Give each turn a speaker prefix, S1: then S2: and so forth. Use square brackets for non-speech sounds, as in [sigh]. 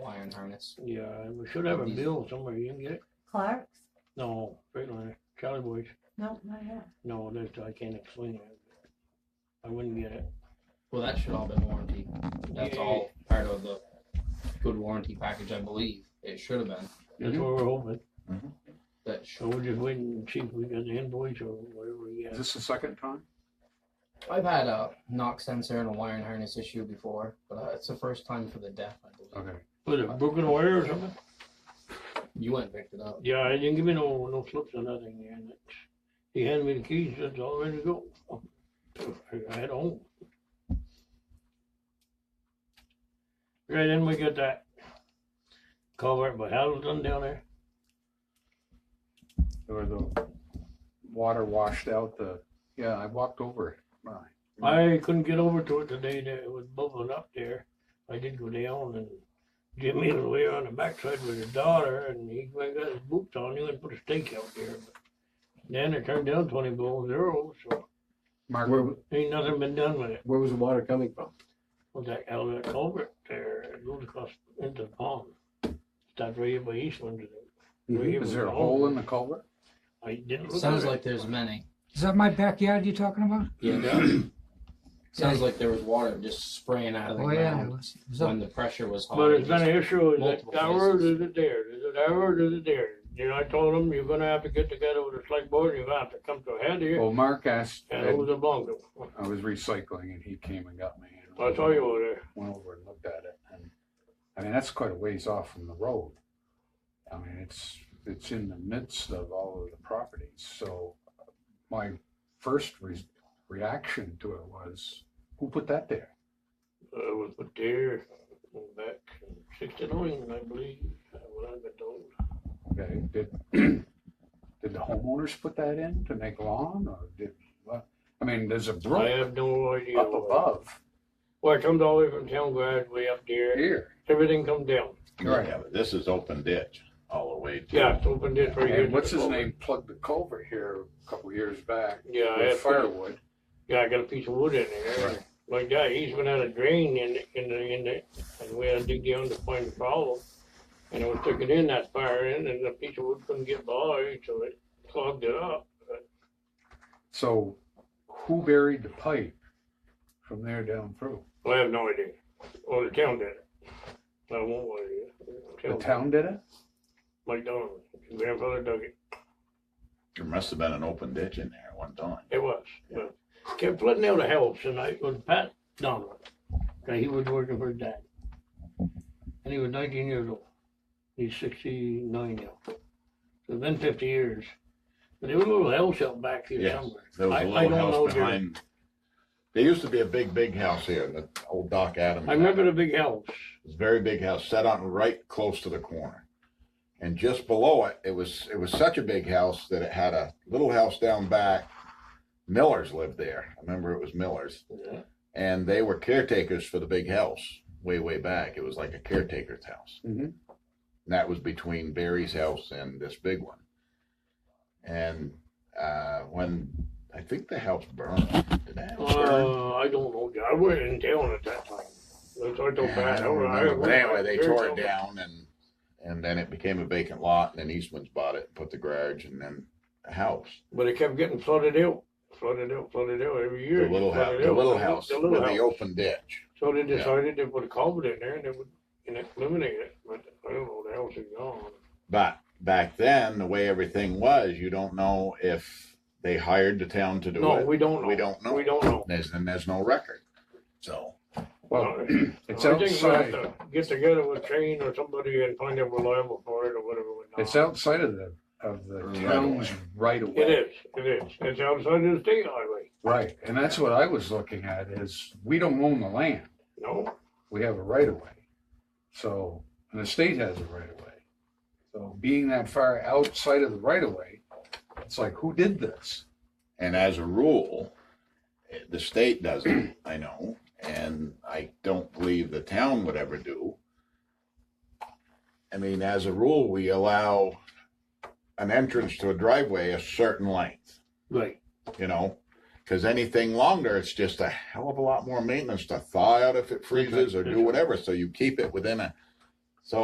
S1: furnace.
S2: Yeah, and we should have a
S1: These-
S2: bill somewhere. You can get it?
S3: Clark's?
S2: No, Freightliner, Charlie Boys.
S3: No, not yet.
S2: No, that's, I can't explain it. I wouldn't get it.
S1: Well, that should all been warranty. That's
S2: Yeah.
S1: all part of the good warranty package, I believe. It should have been.
S2: That's
S1: Mhm.
S2: what we're hoping.
S1: That
S2: So
S1: should.
S2: we're just waiting and see if we got the invoice or whatever we
S4: Is
S2: got.
S4: this the second time?
S1: I've had a knock sensor and a wiring harness issue before, but uh, it's the first time for the deaf, I believe.
S4: Okay.
S2: Was it broken wire or something?
S1: You went and picked it up.
S2: Yeah, he didn't give me no, no slips or nothing, and it's, he handed me the keys, it's all ready to go. I had home. Right, then we got that culvert by Hazelton down there,
S4: Or the water washed out the, yeah, I walked over it. My-
S2: I
S5: Mm-hmm.
S2: couldn't get over to it today, that it was bubbling up there, I did go down and Jimmy was way on the backside with his daughter, and he went and got his boots on, he went and put a stake out there. but Then it turned down twenty below zero, so
S4: Mark,
S5: Where,
S2: ain't nothing been done with it.
S5: where was the water coming from?
S2: was that Elder culvert there, it goes across into the pond. Starts right by Eastland.
S5: Mhm.
S4: is there a hole in the culvert?
S2: I didn't
S1: It
S2: look
S1: sounds
S2: at it.
S1: like there's many.
S6: Is that my backyard you're talking about?
S1: Yeah. sounds like there was water just spraying out of the
S6: Oh, yeah. It
S1: ground
S6: was, it was
S1: when
S6: up,
S1: the pressure was high.
S2: But
S1: It
S2: it's been
S1: just-
S2: an issue, is it
S1: multiple
S2: ours,
S1: places.
S2: is it theirs, is it ours, is it theirs? You know, I told them, you're gonna have to get together with the select board, you're gonna have to come to a head here,
S4: Well, Mark asked,
S2: and it
S4: I
S2: was a bungle.
S4: was recycling and he came and got me. and
S2: I saw you uh, over there,
S4: Went over and looked at it and, I mean, that's quite a ways off from the road. I mean, it's, it's in the midst of all of the properties, so uh, my first re- reaction to it was, who put that there?
S2: it was put there, back in sixty-nine, I believe, when I got told.
S4: Okay, did, [clears throat] did the homeowners put that in to make lawn or did, what? I mean, there's a
S2: I
S4: brook
S2: have no idea.
S4: up
S2: where-
S4: above
S2: Well, it comes all the way from town grass way up there,
S4: here.
S2: everything comes down.
S4: Right.
S7: Yeah, but this is open ditch all the way to.
S2: Yeah, it's open ditch right here.
S4: And what's
S2: to the
S4: his
S2: culvert.
S4: name plugged the culvert here a couple years back
S2: Yeah, I
S4: with
S2: had,
S4: firewood.
S2: yeah, I got a piece of wood in there,
S4: Right.
S2: like that, he's been out of drain in, the- in the, in the, and we had to dig down to find the problem. And I was sticking in that fire in, and the piece of wood couldn't get by, so it clogged it up.
S4: So who buried the pipe from there down through?
S2: I have no idea, or the town did it. I won't worry.
S4: The town did it?
S2: Mike Donovan, his grandfather dug it,
S7: There must have been an open ditch in there at one time.
S2: it was, but kept flooding out of house, and I was Pat Donovan. Okay, he was working for his dad. And he was nineteen years old. He's sixty-nine now. So it's been fifty years. But there was a little house out back here
S7: Yes,
S2: somewhere.
S7: There was
S2: I-
S7: a
S2: I
S7: little
S2: don't know,
S7: house
S2: Jerry.
S7: behind. There used to be a big, big house here, the old Doc Adams.
S2: I remember the big house.
S7: It was a very big house, set on right close to the corner. And just below it, it was, it was such a big house that it had a little house down back. Millers lived there. I remember it was Millers.
S2: Yeah.
S7: And they were caretakers for the big house way, way back. It was like a caretaker's house.
S4: Mhm.
S7: And that was between Barry's house and this big one. And uh, when I think the house burned, did that house burn?
S2: Uh, I don't know, I wasn't in town at that time. That's what I told
S7: Yeah, I
S2: Pat.
S7: don't
S2: I- I
S7: remember. But
S2: went
S7: anyway,
S2: back
S7: they
S2: there
S7: tore it
S2: somewhere.
S7: down and and then it became a vacant lot. And then Eastman's bought it, put the garage, and then a house.
S2: But it kept getting flooded out, flooded out, flooded out every
S7: The
S2: year.
S7: little house,
S2: flooded
S7: the
S2: out.
S7: little house
S2: The
S7: with
S2: little
S7: the
S2: house.
S7: open ditch.
S2: So they
S7: Yeah.
S2: decided they put a culvert in there and they would, and it eliminate it, but I don't know, the house is gone.
S7: But back then, the way everything was, you don't know if they hired the town to do
S2: No,
S7: it.
S2: we don't know.
S7: We don't know.
S2: We don't know.
S7: There's, and there's no record. So
S4: [clears throat] Well, it's
S2: I think we'll have
S4: outside,
S2: to Get together with Shane or somebody and find out we're liable for it or whatever. we're not.
S4: it's outside of the, of the
S7: Right
S4: town's
S7: away.
S4: right away.
S2: It is, it is. It's outside of the state highway.
S4: Right, and that's what I was looking at is we don't own the land.
S2: No,
S4: we have a right of way. So, and the state has a right of way. So being that far outside of the right of way, it's like, who did this?
S7: And as a rule, eh, the state doesn't, I know, and I don't believe the town would ever do. I mean, as a rule, we allow an entrance to a driveway a certain length,
S2: right.
S7: you know? Because anything longer, it's just a hell of a lot more maintenance to thaw out if it freezes or do whatever, so you keep it within a